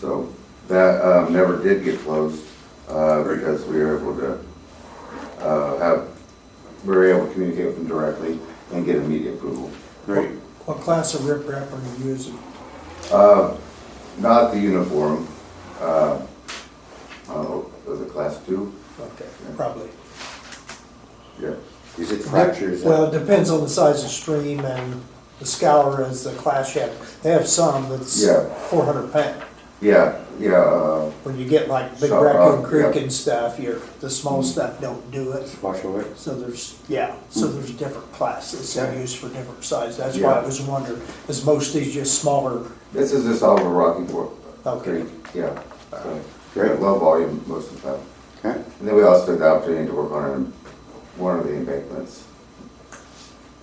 So that um, never did get closed uh, because we were able to uh, have, we were able to communicate with them directly and get immediate approval. Great. What class of riprap are you using? Uh, Not the uniform, uh, uh, was it class two? Okay, probably. Yeah. Is it fractures? Well, it depends on the size of stream and the scour is the class you have. They have some that's Yeah. four hundred pound. Yeah, yeah, uh, When you get like Big Shot Raccoon rock, Creek uh, yeah. Mm. and stuff, you're, the small stuff don't do it. Wash away? So there's, yeah, so there's different classes that are used for different sizes. That's why Mm. Yeah. I was wondering, is most of these just smaller? this is just all of Rocky Fork. Okay. Creek, Yeah. So, Great. Low volume most of the time. Okay, And then we also took the opportunity to work on an- one of the embankments.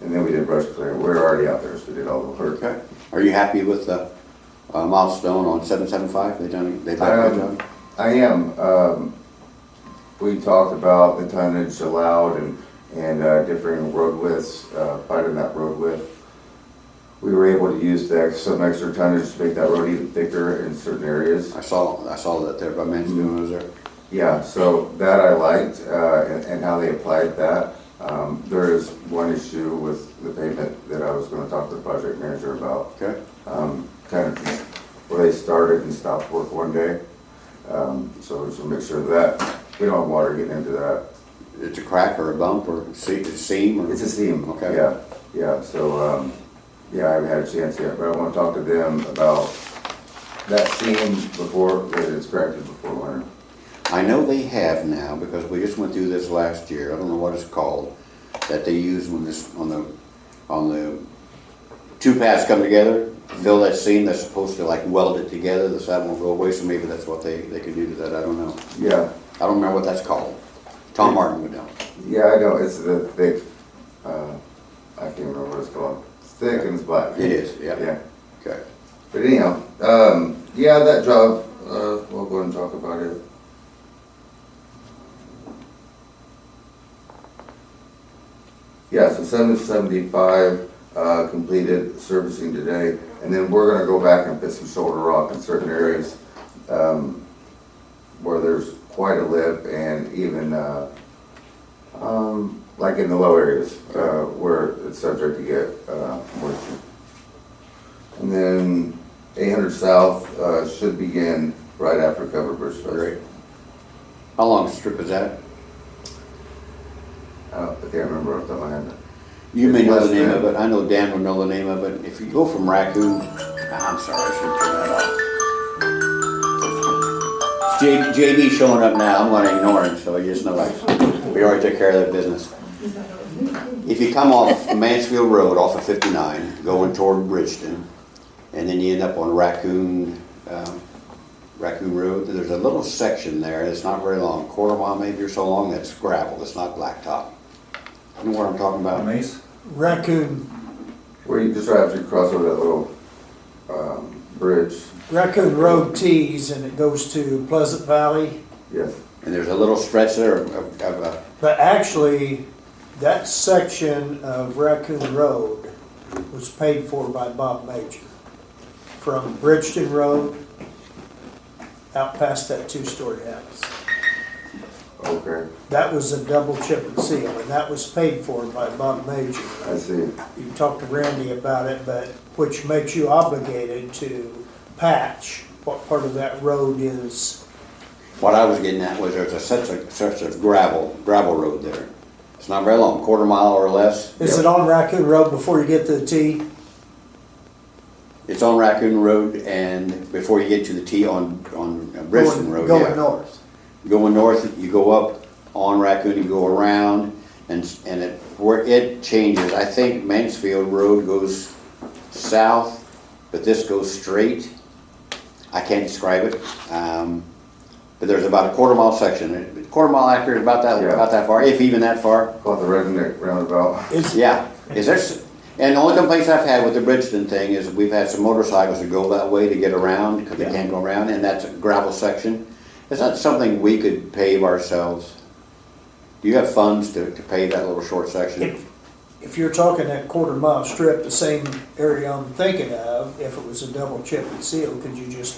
And then we did brush clearing. We were already out there, so we did all the work. okay. Are you happy with the uh, milestone on seven seven five? They done, they've done a good Um, job? I am, um, we talked about the tonnage allowed and, and uh, differing road widths, uh, part of that road width. We were able to use the, ex- some extra tonnage to make that road even thicker in certain areas. I saw, I saw that there, by Mm-hmm. Mansfield was there. Yeah, so that I liked, uh, and, and how they applied that. Um, there is one issue with the pavement that I was gonna talk to the project manager about. Okay, Um, kind of where they started and stopped work one day. Um, so just to make sure that we don't have water getting into that. it's a crack or a bump or a se- a seam or? It's a seam. Okay. Yeah, yeah, so, um, yeah, I haven't had a chance yet, but I wanna talk to them about that seam before, that it's corrected before winter. I know they have now, because we just went through this last year, I don't know what it's called, that they use when this, on the, on the, two paths come together, fill that seam, that's supposed to like weld it together, the side won't go away, so maybe that's what they, they could do to that, I don't know. Yeah, I don't remember what that's called. Tom Martin would know. Yeah, I know, it's the thick, uh, I can't remember what it's called. It's thick and it's black. It is, yeah, Yeah, okay. but anyhow, um, yeah, that job, uh, we'll go and talk about it. Yeah, so seven seventy-five, uh, completed servicing today, and then we're gonna go back and put some shoulder rock in certain areas, um, where there's quite a lip and even, uh, um, like in the low areas, uh, where it's subject to get, uh, moisture. And then eight hundred south, uh, should begin right after Cover Bridge Fest. Great. How long a strip is that? I don't- I can't remember off the top of my head. You may know Less the name than- of it, I know Dan will know the name of it. If you go from Raccoon, I'm sorry, I should turn that off. J- JB showing up now, I'm gonna ignore him, so you just know I, we already took care of that business. If you come off Mansfield Road, off of fifty-nine, going toward Bridgeton, and then you end up on Raccoon, um, Raccoon Road, there's a little section there, it's not very long, quarter mile maybe or so long, that's gravel, it's not blacktop. You know what I'm talking about? Mace? Raccoon, Where you just right after you cross over that little, um, bridge, Raccoon Road tees and it goes to Pleasant Valley. yes. And there's a little stretch there of, of, of, uh, But actually, that section of Raccoon Road was paid for by Bob Major. From Bridgeton Road out past that two-story house. Okay, That was a double chip and seal, and that was paid for by Bob Major. I see. You talked to Randy about it, but, which makes you obligated to patch what part of that road is, what I was getting at was there's a such a, such a gravel, gravel road there. It's not very long, quarter mile or less. is it on Raccoon Road before you get to the T? It's on Raccoon Road and before you get to the T on, on Briston Going- Road, yeah. Going north. Going north, you go up on Raccoon, you go around and, s- and it, where it changes, I think Mansfield Road goes south, but this goes straight. I can't describe it. Um, but there's about a quarter mile section. A Quarter mile accurate, about that, Yeah. about that far, if even that far. Called the redneck roundabout. It's, Yeah. Is there, s- and the only complaints I've had with the Bridgeton thing is we've had some motorcycles that go that way to get around because they Yeah. can't go around and that's a gravel section. Is that something we could pave ourselves? Do you have funds to, to pave that little short section? If, if you're talking that quarter mile strip, the same area I'm thinking of, if it was a double chip and seal, could you just